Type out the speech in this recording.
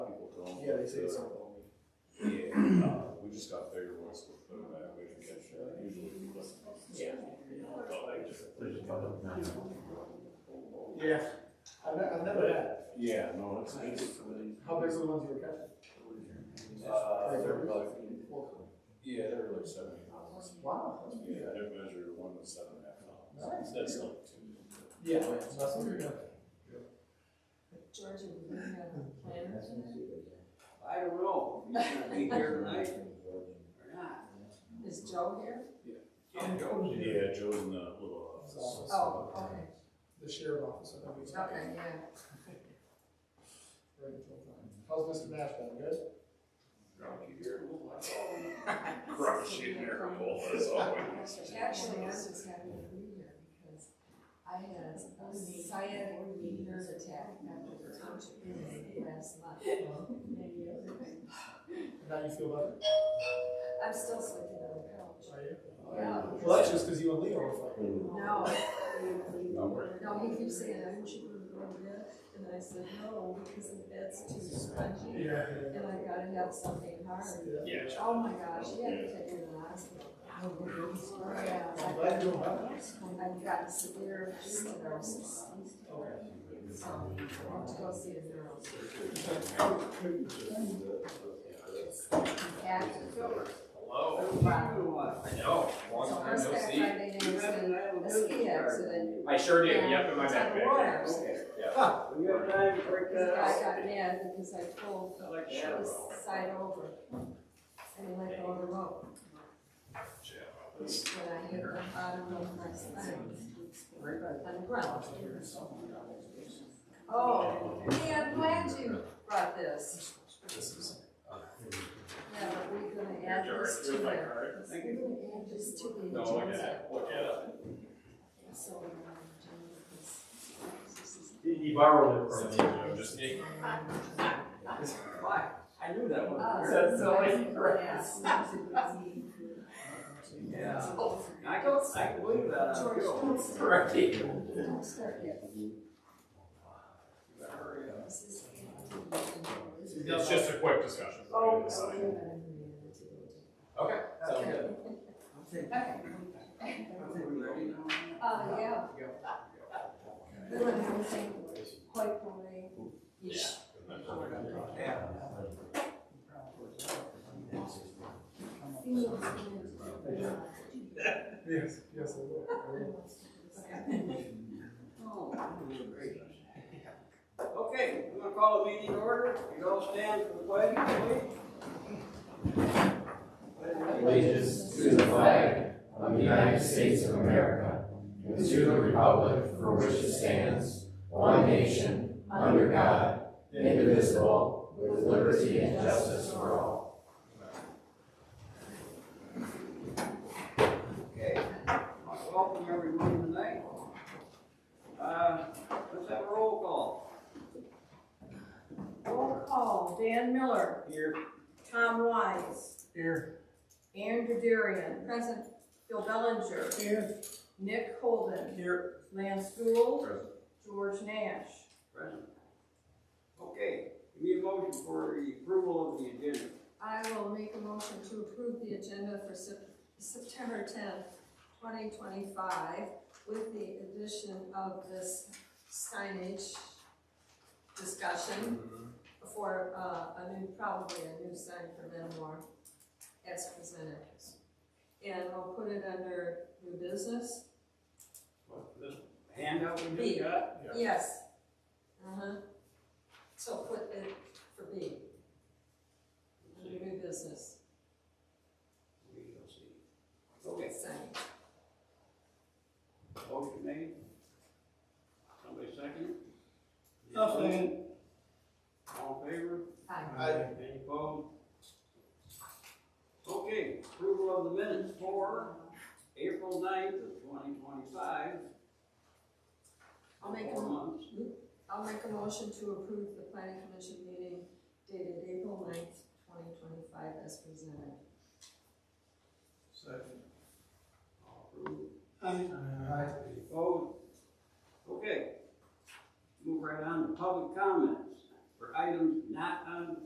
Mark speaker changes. Speaker 1: Yeah, they say it's not long.
Speaker 2: Yeah, uh, we just got bigger ones, we put them back, we can catch that, usually we put. Yeah.
Speaker 1: Yeah. I've, ne- I've never had. it.
Speaker 2: Yeah, no, it's nice.
Speaker 1: How big's the ones you were catching?
Speaker 2: Uh,
Speaker 1: Like,
Speaker 2: they're like,
Speaker 1: Well,
Speaker 2: yeah, they're like seventy pounds.
Speaker 1: Wow. that's
Speaker 2: Yeah,
Speaker 1: big.
Speaker 2: I did measure one with seven and a half pounds, that's like two.
Speaker 1: Yeah, that's what you're gonna.
Speaker 3: George, we have a plan or something?
Speaker 4: I don't know, if he's gonna be here tonight or not.
Speaker 3: Is Joe here?
Speaker 4: Yeah, Joe's here.
Speaker 2: Yeah, Joe's in the little uh, office.
Speaker 3: Oh, okay,
Speaker 1: The sheriff office, I think it's.
Speaker 3: okay, yeah.
Speaker 1: Right until time. How's Mr. Nashville, good?
Speaker 2: Drunk you here. Crush you here, bull, as always.
Speaker 3: Actually, I was just happy to be here because I had a sciatic nerve attack after the township meeting last month.
Speaker 1: Now you feel better?
Speaker 3: I'm still sleeping on the couch.
Speaker 1: Are you?
Speaker 3: Yeah.
Speaker 1: Well, that's just because you and Leo are fighting.
Speaker 3: No,
Speaker 2: Not worried.
Speaker 3: no, he keeps saying, I'm chewing on it, and I said, no, because the bed's too spongy,
Speaker 1: Yeah.
Speaker 3: and I gotta have something hard.
Speaker 2: Yeah.
Speaker 3: Oh my gosh, he had to take it to the hospital. Yeah,
Speaker 1: I'm glad you're doing well.
Speaker 3: I've got severe stenosis. So, I want to go see a neurosurgeon. Active.
Speaker 4: Hello. I know, long
Speaker 3: So
Speaker 4: time
Speaker 3: first
Speaker 4: no
Speaker 3: back
Speaker 4: see.
Speaker 3: Friday night, was a- a ski accident.
Speaker 4: I sure did,
Speaker 3: Yeah,
Speaker 4: yep, in my
Speaker 3: it's on the
Speaker 4: backpack.
Speaker 3: waters.
Speaker 4: You have time to break
Speaker 3: This guy got mad because I pulled
Speaker 4: I like that.
Speaker 3: this side over. And he let go of the rope, and I hit the bottom of my spine on the ground. Oh, hey, I'm glad you brought this.
Speaker 2: This is. uh,
Speaker 3: Yeah, but we're gonna add this to
Speaker 2: You're my
Speaker 3: the,
Speaker 2: card.
Speaker 3: we're gonna add this to the.
Speaker 2: No, look at
Speaker 3: agenda.
Speaker 2: that, look at that.
Speaker 3: So, um, James,
Speaker 5: He borrowed it
Speaker 2: Since
Speaker 5: from
Speaker 2: you
Speaker 5: me.
Speaker 2: know, just me.
Speaker 4: Why? I knew that
Speaker 3: Uh,
Speaker 4: one.
Speaker 5: That's all I
Speaker 4: Yeah. I can, I can believe that.
Speaker 3: George, don't say-
Speaker 4: Correct.
Speaker 3: Don't start yet.
Speaker 4: Hurry up.
Speaker 3: This is-
Speaker 2: It's just a quick discussion.
Speaker 3: Oh,
Speaker 2: It's
Speaker 3: okay.
Speaker 2: fine. Okay, sounds good.
Speaker 3: Uh, yeah. Really, I'm saying, quite boring.
Speaker 4: Yeah.
Speaker 1: Yes, yes, I will. I will.
Speaker 4: Oh, Okay, we're gonna call the meeting to order. You all stand for the pledge, please.
Speaker 6: allegiance to the flag of the United States of America and to the republic for which it stands, one nation, under God, indivisible, with liberty and justice for all.
Speaker 4: Okay. Welcome everyone tonight. Uh, let's have a roll call.
Speaker 7: Roll call, Dan Miller,
Speaker 4: Here.
Speaker 7: Tom Wise,
Speaker 1: Here.
Speaker 7: Andrew Darian,
Speaker 3: Present,
Speaker 7: Phil Bellinger,
Speaker 1: Here.
Speaker 7: Nick Holden,
Speaker 4: Here.
Speaker 7: Lance Gould, George Nash.
Speaker 4: Present. Okay, give me a motion for the approval of the agenda.
Speaker 3: I will make a motion to approve the agenda for Sep- September tenth, twenty twenty-five, with the addition of this signage discussion for, uh, a new, probably a new sign for Metamore as presented. And I'll put it under new business.
Speaker 4: Handout we
Speaker 3: B.
Speaker 4: just got?
Speaker 2: Yeah.
Speaker 3: Yes. Uh-huh. So put it for B. Under new business,
Speaker 4: We shall see. Okay,
Speaker 3: sign.
Speaker 4: motion made. Somebody second?
Speaker 1: I'll second.
Speaker 4: All in favor?
Speaker 3: Aye.
Speaker 4: Any opposed? Okay, approval of the minutes for April 9th of twenty twenty-five.
Speaker 3: I'll make a
Speaker 4: Four
Speaker 3: mo-
Speaker 4: months.
Speaker 3: I'll make a motion to approve the planning commission meeting dated April 9th, twenty twenty-five as presented.
Speaker 4: All approved.
Speaker 1: Aye.
Speaker 4: Any opposed? Okay. Move right on to public comments for items not on